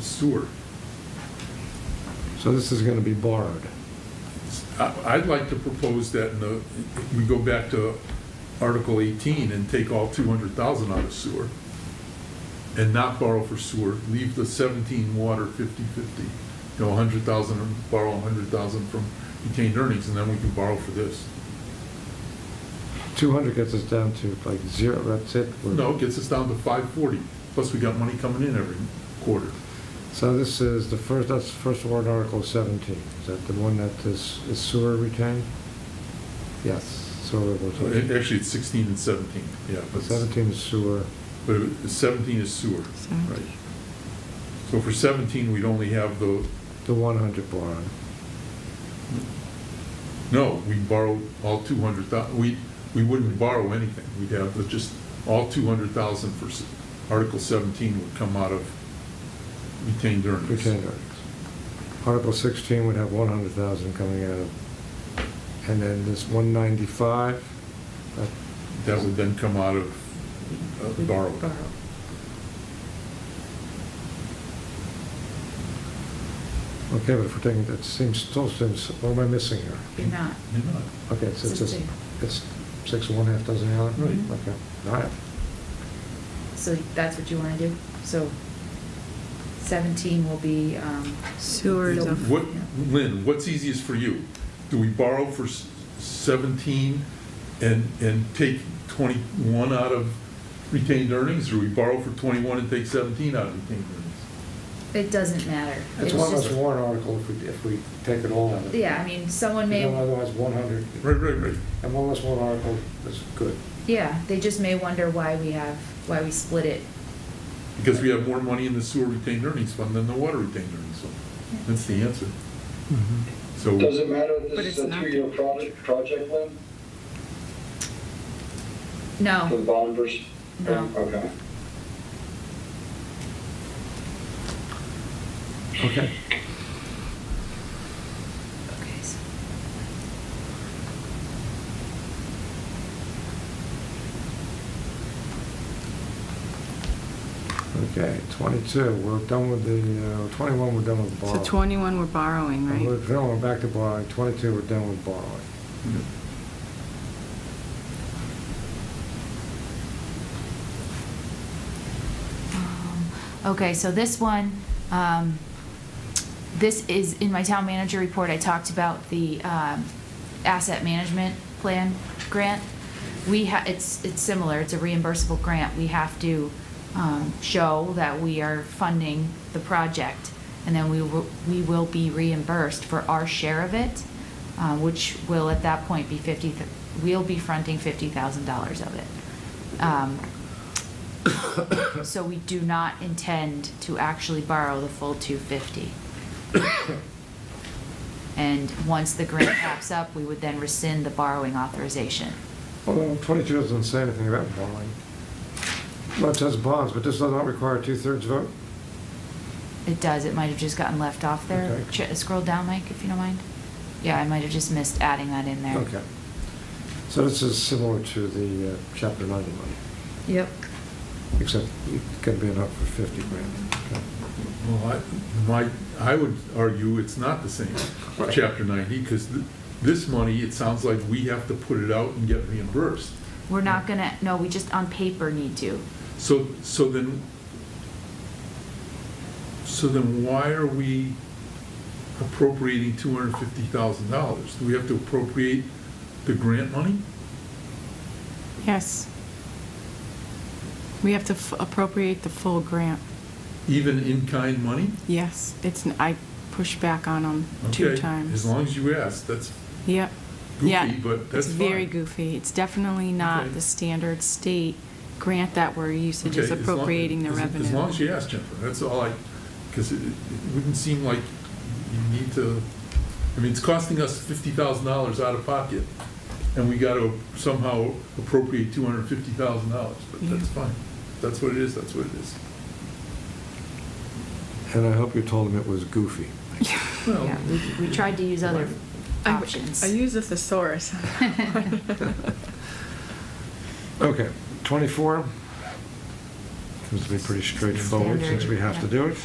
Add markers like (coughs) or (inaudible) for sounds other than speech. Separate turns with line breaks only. sewer.
So this is going to be borrowed.
I- I'd like to propose that in the, we go back to Article 18 and take all 200,000 out of sewer and not borrow for sewer, leave the 17 water 50/50, you know, 100,000, and borrow 100,000 from retained earnings, and then we can borrow for this.
200 gets us down to like zero, that's it? We're-
No, it gets us down to 540, plus we got money coming in every quarter.
So this is the first, that's the first warrant article 17. Is that the one that is is sewer retained? Yes, sewer
So it-
retained.
Actually, it's 16 and 17, yeah. but it's-
17 is sewer.
But it- 17 is sewer, right?
Seventeen.
So for 17, we'd only have the,
The 100 borrowed.
no, we borrow all 200,000, we, we wouldn't borrow anything. We'd have the- just all 200,000 for, s- Article 17 would come out of retained earnings.
retained earnings. Article 16 would have 100,000 coming out of, and then this 195, that-
That would then come out of uh, borrowed.
okay, but if we're taking, that seems, still seems, what am I missing here?
You're not.
You're not.
Okay, so it's just,
Sixteen.
it's six and one half dozen the other?
Right.
Okay, all right.
So that's what you want to do? So 17 will be. um,
Sewer is
the-
a-
What, Lynn, what's easiest for you? Do we borrow for s- 17 and, and take 21 out of retained earnings? Or we borrow for 21 and take 17 out of retained earnings?
It doesn't matter.
It's
It's
one less
just-
warrant article if we, if we take it all out of it.
Yeah, I mean, someone
You know,
may,
Otherwise, 100,
Right, right, right.
and one less warrant article is good.
yeah, they just may wonder why we have, why we split it.
Because we have more money in the sewer retained earnings fund than the water retained earnings fund. That's the answer.
Mm-hmm.
So,
Does it matter if
But
this is
it's
a
not.
three-year project, project, Lynn? For the
No,
bond versus?
No.
Okay.
Okay.
okay, so
Okay, 22, we're done with the, uh, 21, we're done with
So
borrowing.
21, we're borrowing,
And We're
right?
no, we're back to borrowing, 22, we're done with borrowing.
Um, Okay, so this one, um, this is, in my town manager report, I talked about the um, asset management plan grant. We ha, it's, it's similar, it's a reimbursable grant. We have to um, show that we are funding the project, and then we will, we will be reimbursed for our share of it, uh, which will at that point be 50, th- we'll be fronting $50,000 of it. Um, so we do not intend to actually borrow the full two fifty. And once the grant
(coughs)
wraps up, we would then rescind the borrowing authorization.
Although 22 doesn't say anything about borrowing. Well, it says bonds, but this does not require a two-thirds vote?
It does, it might have just gotten left off there.
Okay.
Ch- uh, Scroll down, Mike, if you don't mind. Yeah, I might have just missed adding that in there.
Okay. So this is similar to the uh, Chapter 90 money,
Yep.
except it can be enough for 50 grand. Okay.
well, I, my, I would argue it's not the same, chapter 90, because this money, it sounds like we have to put it out and get reimbursed.
We're not gonna, no, we just on paper need to.
So, so then, so then why are we appropriating two hundred and fifty thousand dollars? Do we have to appropriate the grant money?
Yes. We have to f- appropriate the full grant.
Even in-kind money?
Yes, it's, n- I pushed back on them two
Okay, As
times.
long as you ask, that's
Yep. Yeah.
goofy, but that's
It's
fine.
very goofy. It's definitely not
Okay.
the standard state grant that we're used to,
Okay, as
just
long-
appropriating the
as-
revenue.
As long as you ask, Jennifer, that's all I, because it it wouldn't seem like you need to, I mean, it's costing us fifty thousand dollars out of pocket, and we got to somehow appropriate two hundred and fifty thousand dollars, but that's
Yeah.
fine. That's what it is, that's what it is.
And I hope you told him it was
(laughs)
goofy.
Well,
Yeah, we, we tried to use other
I-
options.
I use a (laughs) thesaurus.
Okay, 24 seems to be pretty straightforward since we have to do it.